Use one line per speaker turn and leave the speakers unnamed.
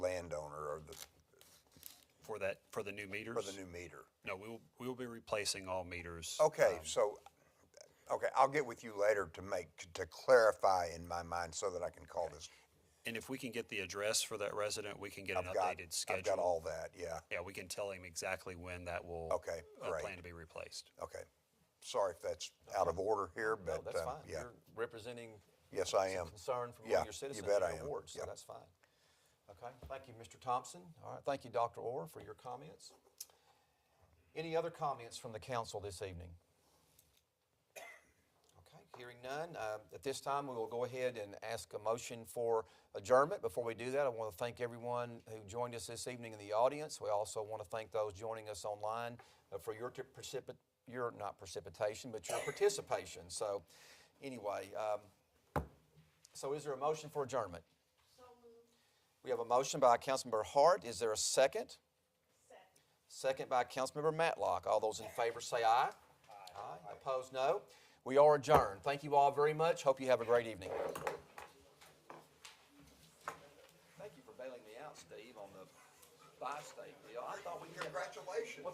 for that, for the new meters?
for the new meter?
No, we will, we will be replacing all meters.
Okay,
Um.
so, okay, I'll get with you later to make, to clarify in my mind so that I can call this.
And if we can get the address for that resident, we can get an
I've got-
updated schedule.
I've got all that, yeah,
Yeah, we can tell him exactly when that will.
Okay,
uh,
great.
Plan to be replaced.
okay. Sorry if that's out of order here,
No,
but,
that's
um,
fine.
yeah,
You're representing
yes, I am.
concern from
Yeah,
all your citizens
You bet
in
I
your
am,
ward, so
yeah.
that's fine. Okay, thank you, Mr. Thompson. All right, thank you, Dr. Orr, for your comments. Any other comments from the council this evening? Okay, hearing none. uh, At this time, we will go ahead and ask a motion for adjournment. Before we do that, I want to thank everyone who joined us this evening in the audience. We also want to thank those joining us online uh, for your t- precipit, your, not precipitation, but your participation. So anyway, um, so is there a motion for adjournment? We have a motion by Councilmember Hart. Is there a second? Second by Councilmember Matlock. All those in favor say aye. Aye. Opposed, no. We are adjourned. Thank you all very much. Hope you have a great evening. Thank you for bailing me out, Steve, on the buy state deal. I thought we.
Congratulations.